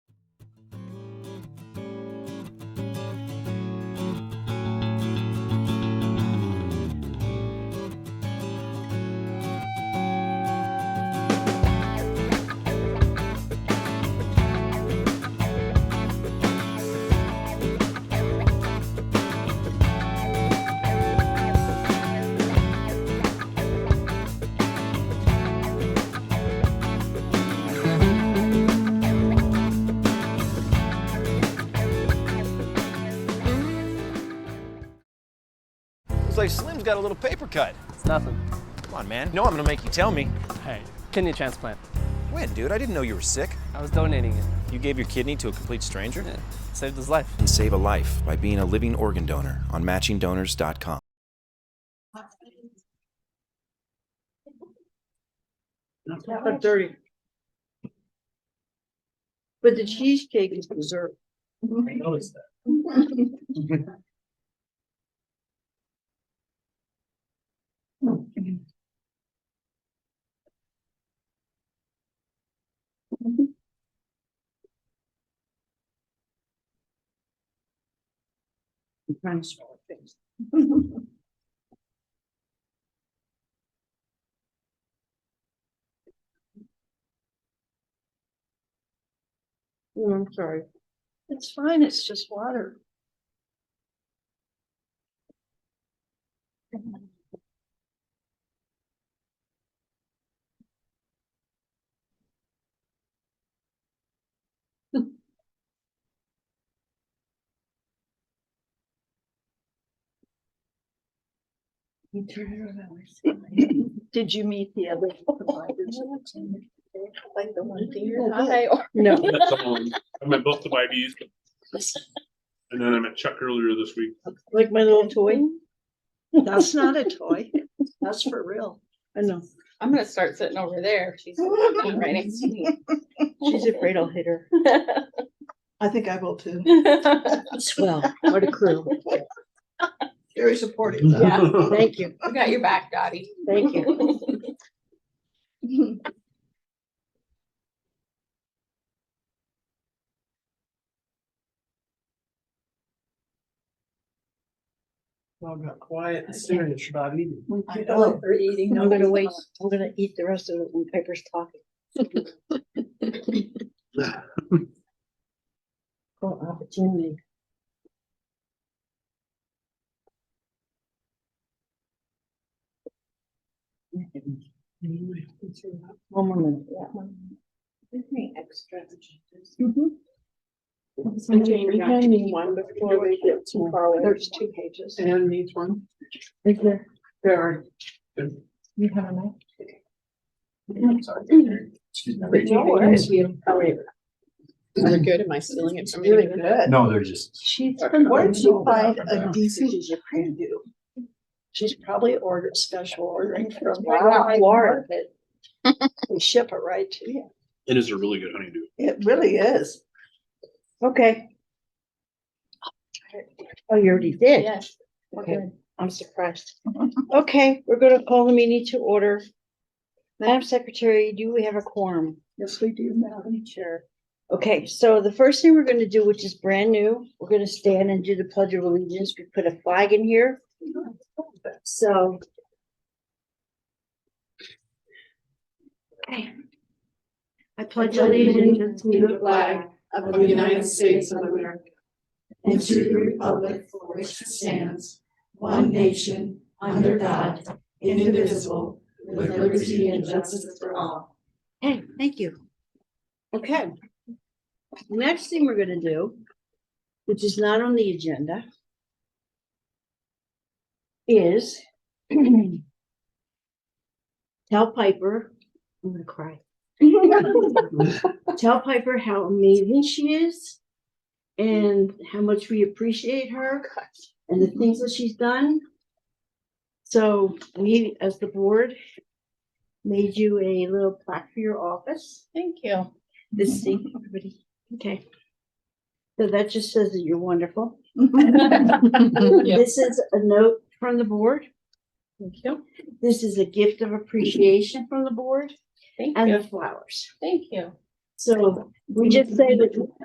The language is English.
like Slim's got a little paper cut. It's nothing. Come on, man. No, I'm gonna make you tell me. Hey. Kidney transplant. When, dude? I didn't know you were sick. I was donating it. You gave your kidney to a complete stranger? Yeah. Saved his life. And save a life by being a living organ donor on matchingdonors.com. Seven thirty. But the cheesecake is dessert. Mm-hmm. I noticed that. I'm trying to swallow things. Oh, I'm sorry. It's fine, it's just water. Did you meet the other providers? Like the one thing you're high or? No. That's all. I'm at both the YBs. And then I'm at Chuck earlier this week. Like my little toy? Mm-hmm. That's not a toy. That's for real. I know. I'm gonna start sitting over there. She's right next to me. She's afraid I'll hit her. I think I will too. Swell, what a crew. Very supportive. Yeah. Thank you, We got your back, Dottie. thank you. Well, got quiet and serious about eating. I know. I'm gonna wait, I'm gonna eat the rest of it when Piper's talking. Oh, opportunity. One more minute, yeah. Mm-hmm. There's two pages. And needs one. Is there? There are. You have enough? Excuse me. No worries. They're good. Am I stealing it from Really you? good. No, they're just, She's. Where did you find Yeah. a decent preview? She's probably ordered special ordering from Wow. Florida. We ship it right to you. It is a really good honeydew. It really is. Okay. Oh, you already did? Yes. Okay, I'm surprised. Okay, we're gonna call the meeting to order. Madam Secretary, do we have a quorum? Yes, we do, Madam Chair. Okay, so the first thing we're gonna do, which is brand new, we're gonna stand and do the pledge of allegiance. We put a flag in here, Mm-hmm. so. I pledge allegiance to the flag of the United States of America and to the republic for which it stands, one nation, under God, indivisible, with liberty and justice for all. Hey, thank you. Okay. Next thing we're gonna do, which is not on the agenda, is tell Piper, I'm gonna cry. Tell Piper how amazing she is and how much we appreciate her and the things that she's done. So we, as the board, made you a little plaque for your office. Thank you. This thing, everybody. Okay. So that just says that you're wonderful. This is a note from the board. Thank you. This is a gift of appreciation from the board Thank and the you. flowers. Thank you. So we just say that